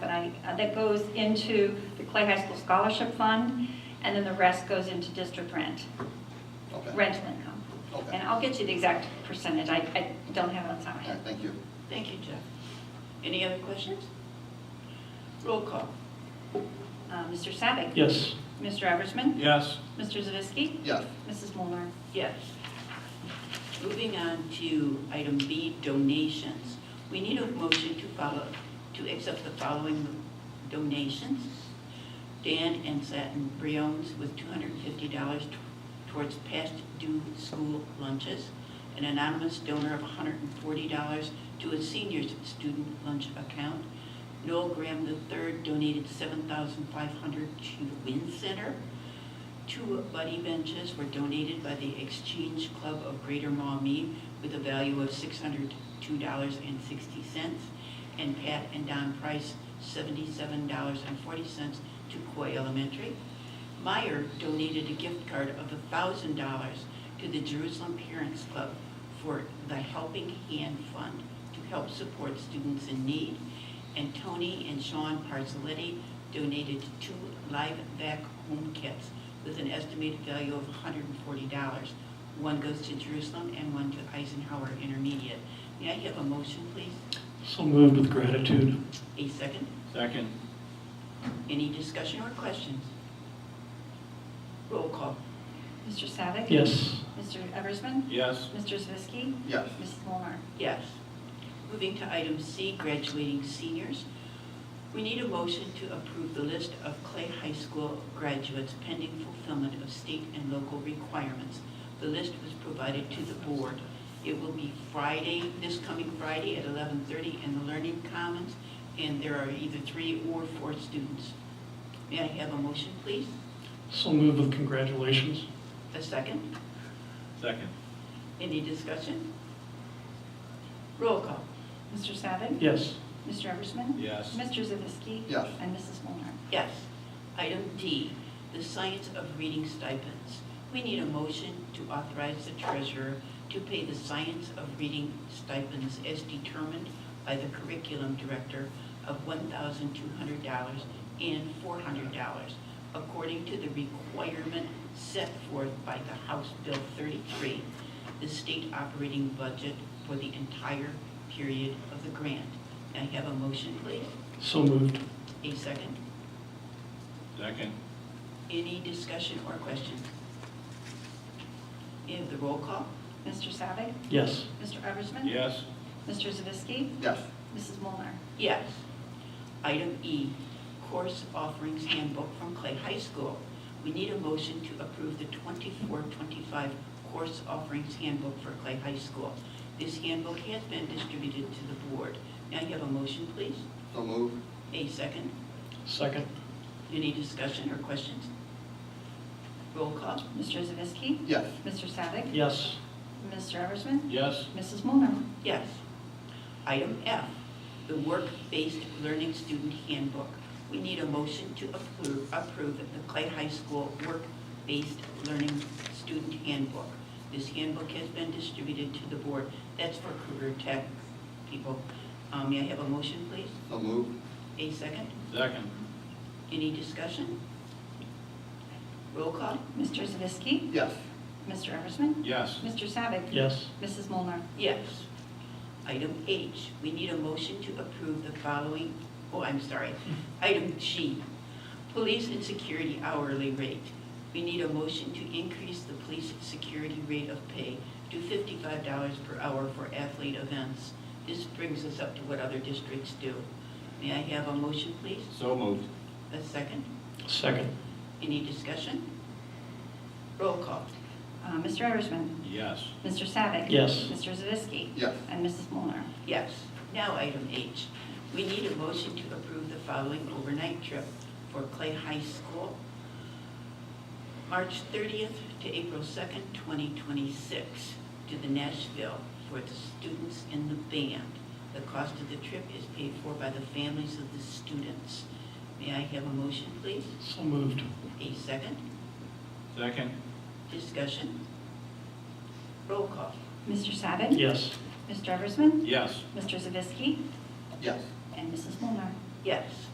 but I, uh, that goes into the Clay High School Scholarship Fund, and then the rest goes into district rent, Okay. rental income. Okay. And I'll get you the exact percentage, I, I don't have it on top of my All right, head. thank you. Thank you, Jeff. Any other questions? Roll call. Uh, Mr. Savick. Yes. Mr. Eversman. Yes. Mr. Zavisky. Yes, Mrs. Molnar. Yes. Moving on to item B, donations. We need a motion to follow, to accept the following donations. Dan and Satin Briones with $250 t- towards past due school lunches. An anonymous donor of $140 to a senior's student lunch account. Noel Graham III donated $7,500 to the Wynn Center. Two buddy benches were donated by the Exchange Club of Greater Maumee with a value of $602.60. And Pat and Don Price, $77.40 to Coy Elementary. Meyer donated a gift card of $1,000 to the Jerusalem Parents Club for the Helping Hand Fund to help support students in need. And Tony and Sean Parzelletti donated two live vac home kits with an estimated value of $140. One goes to Jerusalem and one to Eisenhower Intermediate. May I have a motion, please? So moved with gratitude. A second? Second. Any discussion or questions? Roll call. Mr. Savick. Yes. Mr. Eversman. Yes. Mr. Zavisky. yes, Mrs. Molnar. Yes. Moving to item C, graduating seniors. We need a motion to approve the list of Clay High School graduates pending fulfillment of state and local requirements. The list was provided to the board. It will be Friday, this coming Friday at 11:30 in the Learning Commons, and there are either three or four students. May I have a motion, please? So moved with congratulations. A second? Second. Any discussion? Roll call. Mr. Savick. Yes. Mr. Eversman. Yes. Mr. Zavisky. Yes. And Mrs. Molnar. Yes. Item D, the science of reading stipends. We need a motion to authorize the treasurer to pay the science of reading stipends as determined by the curriculum director of $1,200 and $400 according to the requirement set forth by the House Bill 33, the state operating budget for the entire period of the grant. May I have a motion, please? So moved. A second? Second. Any discussion or questions? You have the roll call? Mr. Savick. Yes. Mr. Eversman. Yes. Mr. Zavisky. yes, Mrs. Molnar. Yes. Item E, Course Offerings Handbook from Clay High School. We need a motion to approve the 24-25 Course Offerings Handbook for Clay High School. This handbook has been distributed to the board. Now you have a motion, please? so move, A second? Second. Any discussion or questions? Roll call? Mr. Zavisky. yes, Mr. Savick. Yes. Mr. Eversman. Yes. Mrs. Molnar. Yes. Item F, the Work-Based Learning Student Handbook. We need a motion to approve, approve the Clay High School Work-Based Learning Student Handbook. This handbook has been distributed to the board. That's for career tech people. Um, May I have a motion, please? so move, A second? Second. Any discussion? Roll call? Mr. Zavisky. yes, Mr. Eversman. Yes. Mr. Savick. Yes. Mrs. Molnar. Yes. Item H, we need a motion to approve the following, oh, I'm sorry. Item G, police and security hourly rate. We need a motion to increase the police security rate of pay to fifty-five dollars per hour for athlete events. This brings us up to what other districts do. May I have a motion, please? So moved. A second? Second. Any discussion? Roll call. Uh, Mr. Eversman. Yes. Mr. Savick. Yes. Mr. Zavisky. yes, And Mrs. Molnar. Yes. Now, item H, we need a motion to approve the following overnight trip for Clay High School, March 30th to April 2nd, 2026, to the Nashville for the students in the band. The cost of the trip is paid for by the families of the students. May I have a motion, please? So moved. A second? Second. Discussion? Roll call. Mr. Savick. Yes. Mr. Eversman. Yes. Mr. Zavisky. yes, And Mrs. Molnar. Yes.